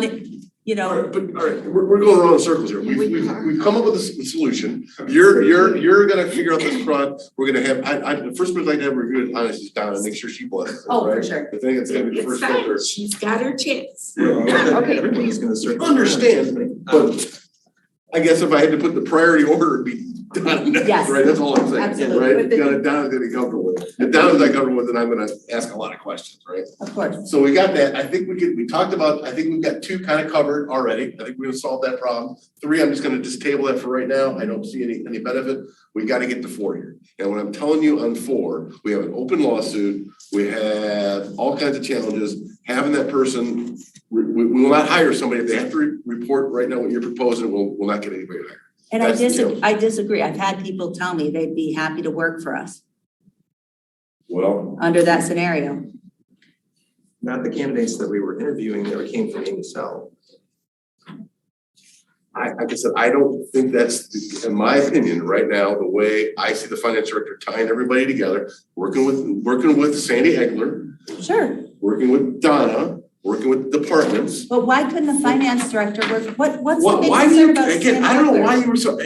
gone, you All know, right, but, all right, we're, we're going around in circles here. We've, we've, we've come up with a s- solution. You're, you're, you're gonna figure out this fraud. We're gonna have, I, I, the first person I'd have review it honestly is Donna, make sure she blesses it, right? oh, for sure. I think it's gonna be the It's first fine, filter. she's got her chance. Okay. Everybody's gonna circle. Understand, but I guess if I had to put the priority order, it'd be Donna next, Yes. right? That's all I'm saying, Absolutely. right? But the- Donna, Donna's gonna be comfortable with it. If Donna's not comfortable with it, I'm gonna ask a lot of questions, right? Of course. So we got that, I think we could, we talked about, I think we've got two kind of covered already, I think we've solved that problem. Three, I'm just gonna just table that for right now, I don't see any, any benefit, we gotta get to four here. And what I'm telling you on four, we have an open lawsuit, we have all kinds of challenges, having that person, we, we we will not hire somebody, if they have to re- report right now what you're proposing, we'll, we'll not get anybody hired. And I That's the disagree, deal. I disagree. I've had people tell me they'd be happy to work for us Well. under that scenario. Not the candidates that we were interviewing that came from Amy Cell. I, like I said, I don't think that's, the- in my opinion, right now, the way I see the finance director tying everybody together, working with, working with Sandy Hegler, Sure, working with Donna, working with departments. but why couldn't the finance director work, what, what's the Why, big why do you, concern about again, Stan I don't know Butler? why you were so,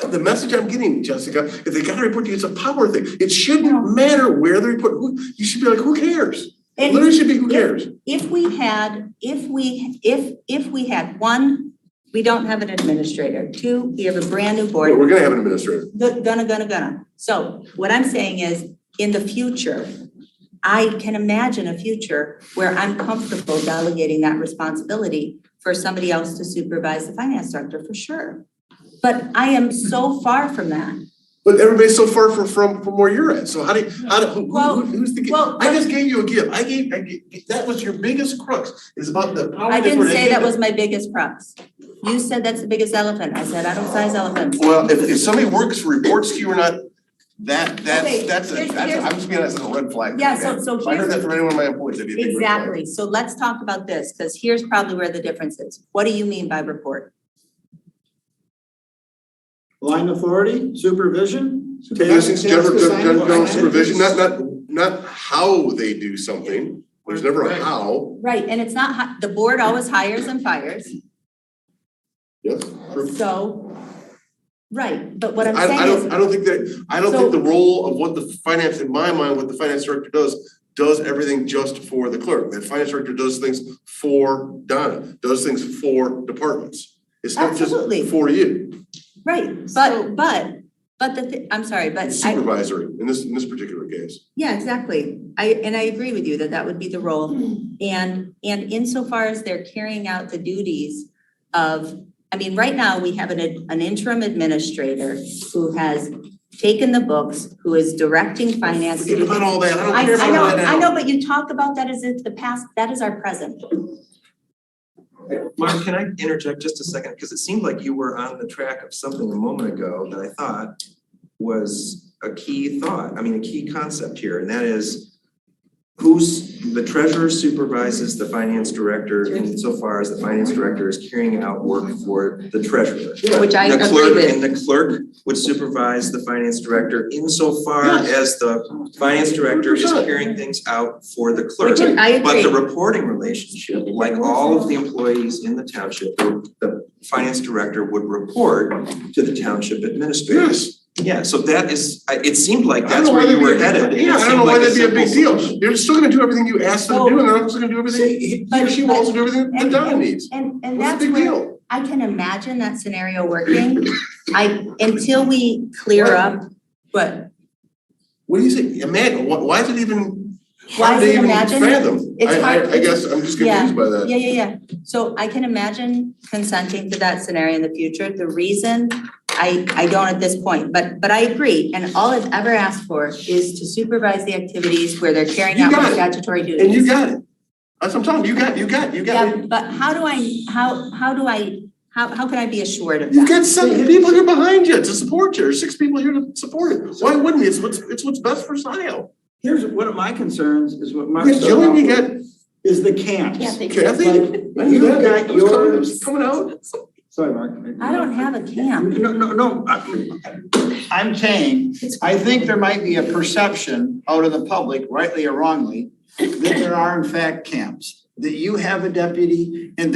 uh, the message I'm getting, Jessica, is they gotta report to you, it's a power thing. It shouldn't matter where they report, who, you should be like, who cares? It And literally should be, who Yeah. cares? if we had, if we, if, if we had, one, we don't have an administrator. Two, we have a brand new board. But We're gonna have an administrator. Go- Gonna, gonna, gonna. So what I'm saying is, in the future, I can imagine a future where I'm comfortable delegating that responsibility for somebody else to supervise the finance director, for sure. But I am so far from that. But everybody's so far from from from where youyou're at, so how do, you- how do, who Well, who who's the, gi- well, I just gave you a gift, I gave, I gave, that was your biggest crux, is about the power I difference. didn't say that was my biggest crux. You said that's the biggest elephant. I said, I don't size elephants. Well, if if somebody works, reports to you or not, that that's Okay, that's a, here's- that's, a- here's- I'm just being, that's a red flag. Yeah, so, so If I here's. heard that from any one of my employees, that'd be a big red flag. Exactly, so let's talk about this, because here's probably where the difference is. What do you mean by report? Line authority, supervision. That's just general, task assignment. general general supervision, not not not how they do something, there's never a Right. how, Right, and it's not, hi- the board always hires and fires, yes. so, right, but what I'm I I saying is, don't, I don't think that, I don't think the role of what the finance, in my mind, what the finance director does, does everything just for the clerk. The finance director does things for Donna, does things for departments. It's not just Absolutely. for you, right, but, but, but the, thi- I'm sorry, but It's I, supervisory in this, in this particular case. yeah, exactly. I, and I agree with you that that would be the role. And, and insofar as they're carrying out the duties of, I mean, right now, we have an, ad- an interim administrator who has taken the books, who is directing finance to do Forget about all that, I don't I, care I about know, all that now. I know, but you talk about that as if the past, that is our present. Mark, can I interject just a second? Because it seemed like you were on the track of something a moment ago that I thought was a key thought, I mean, a key concept here, and that is who's, the treasurer supervises the finance director insofar as the finance director is carrying out work for the treasurer. Which I The agree clerk with. and the clerk would supervise the finance director insofar as the finance director is 100%. carrying things out for the clerk. Which I But the agree. reporting relationship, like all of the employees in the township, the the finance director would report to the township administrator. Yeah, so that is, I- it seemed like I don't that's know where you why that'd were be a headed. big- and it Yeah, I don't seemed know why like a that'd be a big simple deal. They're still gonna do everything you asked them to do, and they're also gonna do everything, he or she will also do everything that Donna needs. And, and What's that's the big where, deal? I can imagine that scenario working. I, until we clear up, but What do you say, imagine, why, why is it even, Why how is do it they even imagine? fathom? It's I, hard- I, I guess I'm just Yeah. confused by that. Yeah, yeah, yeah. So I can imagine consenting to that scenario in the future. The reason I, I don't at this point, but, but I agree. And all I've ever asked for is to supervise the activities where they're carrying You out got their it. statutory duties. And you got it. That's what I'm telling you, you got, you got, you got, Yeah, but how do I, how, how do I, how, how can I be assured of you that? got seven people here behind you to support you, or six people here to support it. Why wouldn't you? It's what's, it's what's best for Scioto. Here's, one of my concerns is what Mark You got started Jillian, off you with, got is the camps. Kathy, Like, you you've got, got it was coming, it yours. was coming out. Sorry, Mark. I don't have a camp. No, no, no, I- I'm saying, I think there might be a perception out of the public, rightly or wrongly, that there are in fact camps. that you have a deputy and